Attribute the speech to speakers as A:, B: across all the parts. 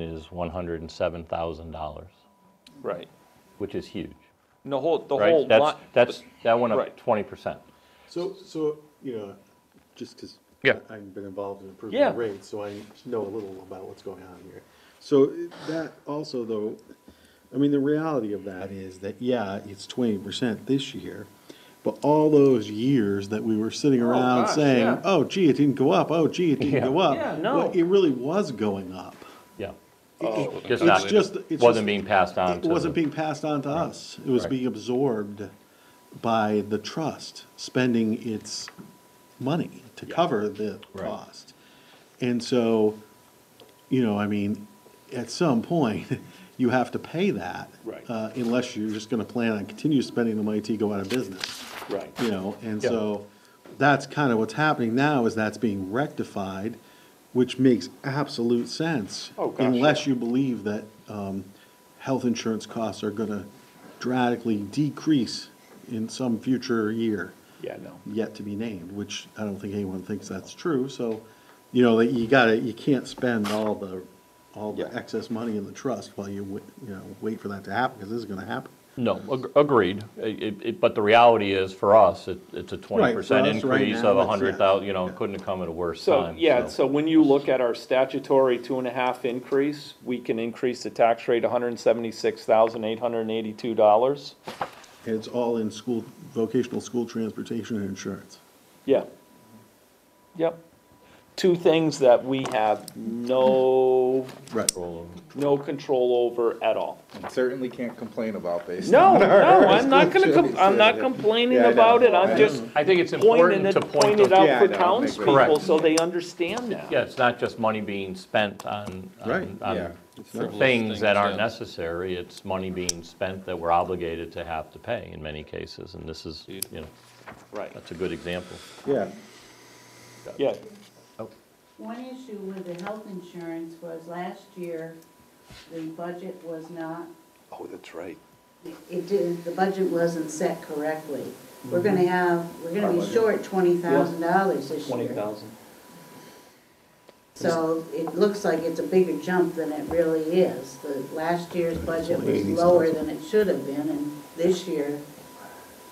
A: is $107,000,
B: Right.
A: which is huge,
B: And the whole, the whole
A: right? That's,
B: line.
A: that's, that went up
B: right.
A: 20%.
C: So, so, you know, just because
A: Yeah.
C: I've been involved in improving
B: Yeah.
C: the rates, so I know a little about what's going on here. So that also though, I mean, the reality of that is that, yeah, it's twenty percent this year. But all those years that we were sitting around
B: gosh,
C: saying,
B: yeah.
C: oh gee, it didn't go up, oh gee, it didn't
A: Oh, Yeah.
C: go up.
B: Yeah, no.
C: well, It really was going up.
A: Yeah.
C: It-
A: Oh, Just
C: it's
A: not,
C: just- it's
A: wasn't
C: just-
A: being passed on
C: It
A: to.
C: wasn't
A: the-
C: being passed on to us. It was
A: Right.
C: being absorbed by the trust spending its money to cover the
A: Right.
C: cost. And so, you know, I mean, at some point, you have to pay that.
B: Right.
C: uh, Unless you're just gonna plan on continue spending the money till you go out of business,
B: Right.
C: you know? And
A: Yeah.
C: so, that's kind of what's happening now, is that's being rectified, which makes absolute sense.
B: Oh, gosh,
C: Unless you believe that um, health insurance costs are gonna dramatically decrease in some future year
B: Yeah, no.
C: yet to be named, which I don't think anyone thinks that's true, so, you know, that you gotta, you can't spend all the, all the
B: Yeah.
C: excess money in the trust while you, wait- you know, wait for that to happen, because this is gonna happen.
A: No, ag- agreed. It- it- But the reality is, for us, it- it's a
C: for
A: 20%
C: us right
A: increase
C: now,
A: of
C: it's-
A: 100,000, you know,
C: yeah.
A: it couldn't have come at a worse
B: So,
A: time.
B: yeah, so when you look at our statutory two and a half increase, we can increase the tax rate hundred and seventy-six thousand, eight hundred and eighty-two dollars.
C: And it's all in school, vocational school transportation and insurance.
B: Yeah. Yep. Two things that we have no,
C: Right.
B: no control over at all.
D: Certainly can't complain about based
B: No,
D: on our-
B: no, I'm not gonna, com- I'm not
D: Yeah,
B: complaining
D: I know.
B: about it, I'm
D: I
B: just
A: I think it's
B: pointing
A: important
B: it,
A: to point
B: pointing it
A: those
D: Yeah,
B: out for
D: I know, I think we-
B: townspeople,
A: Correct.
B: so they understand that.
A: Yeah, it's not just money being spent on,
C: Right.
A: on, on
D: Yeah.
A: things that aren't
E: yeah.
A: necessary. It's money being spent that we're obligated to have to pay in many cases, and this is, you know,
B: Right,
A: that's a good example.
D: Yeah,
B: yeah,
F: One issue with the health insurance was last year, the budget was not,
D: oh, that's right.
F: it didn't, the budget wasn't set correctly. We're
B: Mm-hmm.
F: gonna have, we're gonna be short twenty thousand dollars this
B: twenty
F: year.
B: thousand.
F: So it looks like it's a bigger jump than it really is. The last year's budget was lower than it should have been, and this year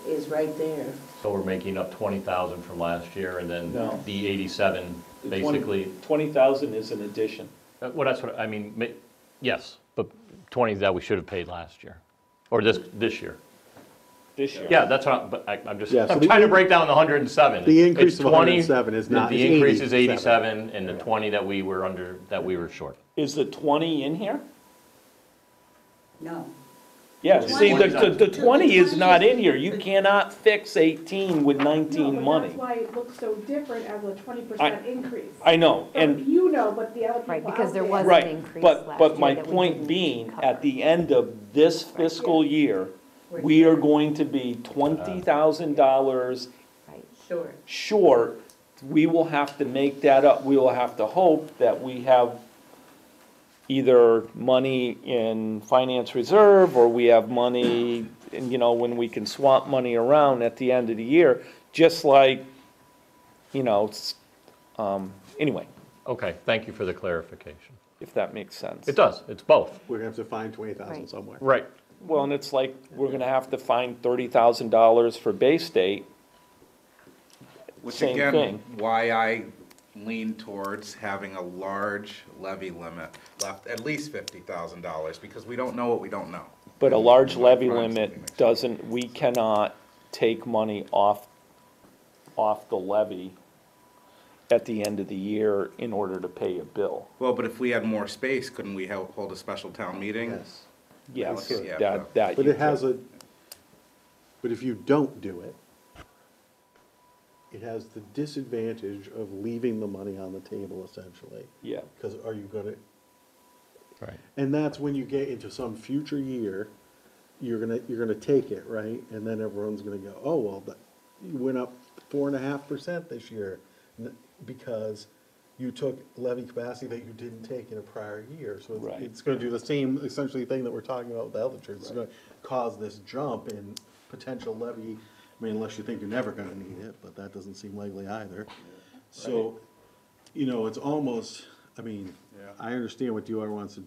F: is right there.
A: So we're making up 20,000 from last year, and then
B: No.
A: the 87, basically,
B: Twenty thousand is an addition.
A: Uh, well, that's what, I mean, ma- yes, but 20 that we should have paid last year, or this, this year.
B: This year.
A: Yeah, that's what, I'm- but I- I'm just,
C: Yeah, so
A: I'm
C: the
A: trying to
C: in-
A: break down the 107.
C: the
A: It's
C: increase of
A: 20,
C: 107 is
A: the-
C: not-
A: The
C: is
A: increase is
C: 87.
A: 87, and the 20 that we were under, that we were short.
B: Is the twenty in here?
F: No.
B: Yeah,
F: The
B: see, the,
F: 20 's
B: the,
F: not-
B: the twenty is
F: The
B: not
F: 20
B: in here, you cannot fix eighteen with nineteen
G: No, but
B: money.
G: that's why it looks so different as a twenty percent increase.
B: I know,
G: But
B: and,
G: You know, but the other people
H: Right, because
G: out
H: there
G: there-
H: was- an
B: right,
H: increase
B: but,
H: last
B: but
H: year
B: my
H: that we
B: point
H: didn't
B: being,
H: cover.
B: at the end of this fiscal year,
F: We're
B: we are going to be twenty thousand dollars
H: Right.
F: Short.
B: short, we will have to make that up. We will have to hope that we have either money in finance reserve or we have money, and, you know, when we can swap money around at the end of the year, just like, you know, it's, um, anyway,
A: Okay, thank you for the clarification.
B: if that makes sense.
A: It does, it's both.
C: We're gonna have to find twenty thousand
H: Right.
C: somewhere.
A: Right.
B: Well, and it's like, we're gonna have to find thirty thousand dollars for Bay State.
D: Which
B: Same
D: again,
B: thing.
D: why I lean towards having a large levy limit left, at least fifty thousand dollars, because we don't know what we don't know.
B: But a large levy
D: Right, something
B: limit
D: like that.
B: doesn't, we cannot take money off, off the levy at the end of the year in order to pay a bill.
D: Well, but if we had more space, couldn't we hel- hold a special town meeting?
C: Yes.
B: Yes,
D: Sure.
B: that, that.
C: But
B: you
C: it has
B: could.
C: a, but if you don't do it, it has the disadvantage of leaving the money on the table essentially.
B: Yeah,
C: Because are you gonna,
A: Right.
C: and that's when you get into some future year, you're gonna, you're gonna take it, right? And then everyone's gonna go, oh, well, but you went up four and a half percent this year n- because you took levy capacity that you didn't take in a prior year. So it's-
B: Right.
C: it's gonna do the same essentially thing that we're talking about with the health insurance. It's gonna cause this jump in potential levy, I mean, unless you think you're never gonna need it, but that doesn't seem likely either. So, you know, it's almost, I mean, I understand what DOR wants to do.